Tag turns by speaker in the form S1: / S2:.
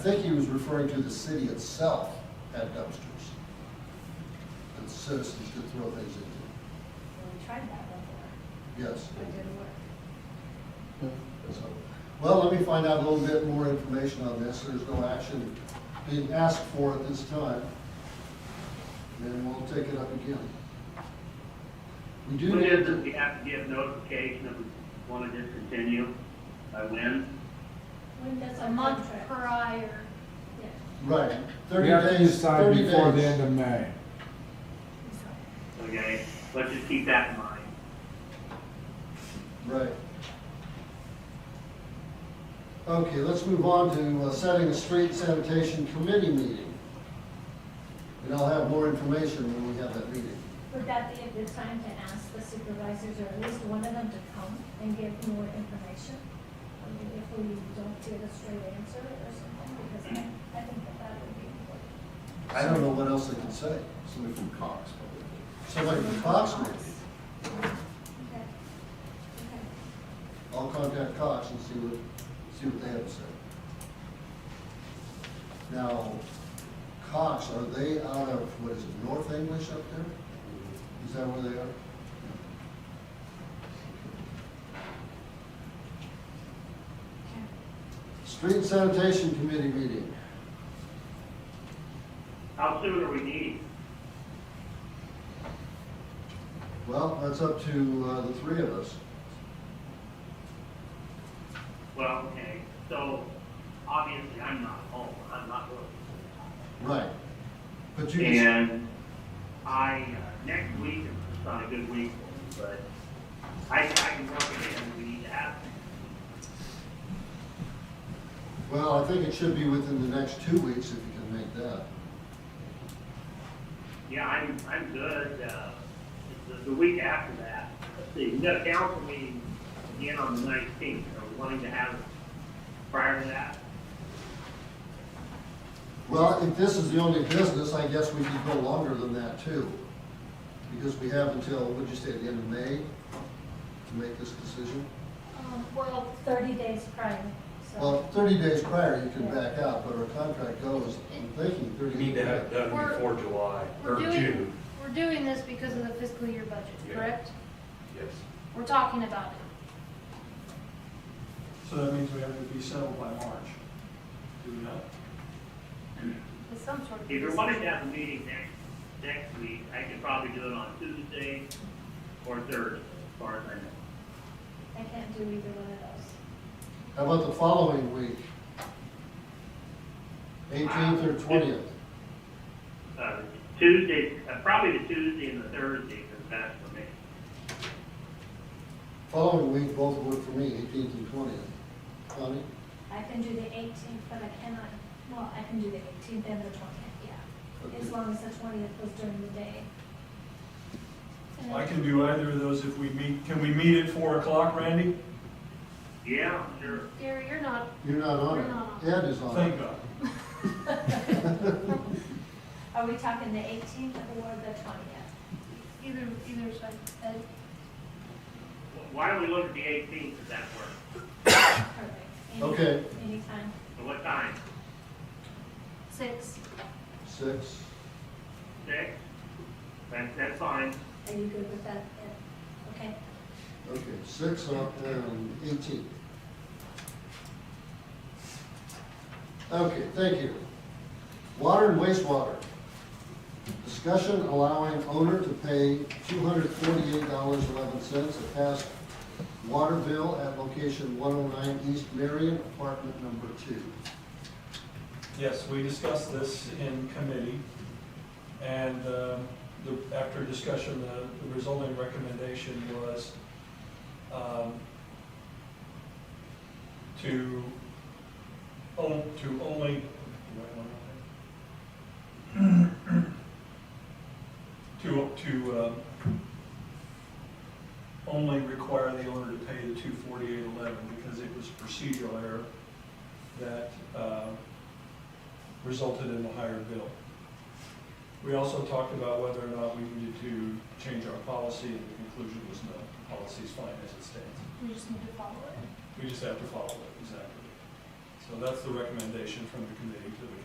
S1: I think he was referring to the city itself had dumpsters that citizens could throw things into.
S2: Well, we tried that before,
S1: Yes.
S2: but it didn't work.
S1: So, Well, let me find out a little bit more information on this. There's no action being asked for at this time. And then we'll take it up again. We do.
S3: What is it, we have to give notification if we want to discontinue, by when?
S2: When does
S4: a
S2: our
S4: month
S2: contract?
S4: prior.
S2: Yeah.
S1: Right,
S5: We
S1: thirty
S5: have to
S1: days,
S5: decide
S1: thirty
S5: before the
S1: days.
S5: end of May.
S3: Okay, let's just keep that in mind.
S1: Right. Okay, let's move on to uh, setting a street sanitation committee meeting. And I'll have more information when we have that meeting.
S2: Would that be a good time to ask the supervisors, or at least one of them to come and give more information? I mean, if we don't get a straight answer or something, because I, I think that that would be important.
S1: I don't know what else they can say.
S6: Somebody from Cox, probably.
S1: Somebody from Cox maybe.
S2: Okay. Okay.
S1: I'll contact Cox and see what, see what they have to say. Now, Cox, are they out of, what is it, North English up there? Is that where they are? Street sanitation committee meeting.
S3: How soon are we needing?
S1: Well, that's up to uh, the three of us.
S3: Well, okay, so obviously I'm not home, I'm not working.
S1: Right. But you can,
S3: And I, uh, next week is just not a good week, for me, but I, I can work it in, we need to have it.
S1: well, I think it should be within the next two weeks if you can make that.
S3: Yeah, I'm, I'm good, uh, the, the week after that, let's see, we got a council meeting again on the nineteenth, are we wanting to have it prior to that?
S1: Well, if this is the only business, I guess we could go longer than that too. Because we have until, what'd you say, the end of May to make this decision?
S2: Um, well, thirty days prior,
S1: Well,
S2: so.
S1: thirty days prior, you can back out, but our contract goes, I'm thinking
S7: We
S1: thirty.
S7: need to have it done
S4: We're-
S7: before July,
S4: We're
S7: or
S4: doing,
S7: June.
S4: we're doing this because of the fiscal year budget,
S7: Yeah.
S4: correct?
S7: Yes.
S4: We're talking about it.
S8: So that means we have to be settled by March. Do we not?
S4: With some sort of.
S3: If you're wanting to have a meeting next, next week, I could probably do it on Tuesday or Thursday, as far as I know.
S2: I can't do either one of those.
S1: How about the following week? Eighteenth or twentieth?
S3: Uh, Tuesday, uh, probably the Tuesday and the Thursday is best for me.
S1: Following week, both work for me, eighteenth and twentieth. Connie?
S2: I can do the eighteenth, but I cannot, well, I can do the eighteenth and the twentieth, yeah. As
S1: Okay.
S2: long as the twentieth was during the day. And
S8: I can do either of those if we meet, can we meet at four o'clock, Randy?
S3: Yeah, sure.
S4: Gary, you're not,
S1: You're not on
S4: We're not
S1: it. Ed is on
S8: Thank
S1: it.
S8: God.
S2: Are we talking the eighteenth or the twentieth?
S4: either, either side, uh, Ed,
S3: Why don't we look at the eighteenth, if that works?
S2: Perfect. Any-
S1: Okay.
S2: Anytime.
S3: So what time?
S4: six.
S1: Six.
S3: Six? That, that's fine.
S2: Are you good with that? Ed? Okay.
S1: Okay, six on, um, eighteen. Okay, thank you. Water and wastewater. Discussion allowing owner to pay two hundred forty-eight dollars eleven cents a past water bill at location one oh nine East Marion, apartment number two.
S8: Yes, we discussed this in committee, and um, the- after discussion, the the resulting recommendation was um, to, on- to only, do I want to- to, to um, only require the owner to pay the two forty-eight eleven, because it was procedural error that um, resulted in a higher bill. We also talked about whether or not we needed to change our policy, and the conclusion was no, the policy's fine as it stands.
S4: We just need to follow it.
S8: We just have to follow it, exactly. So that's the recommendation from the committee.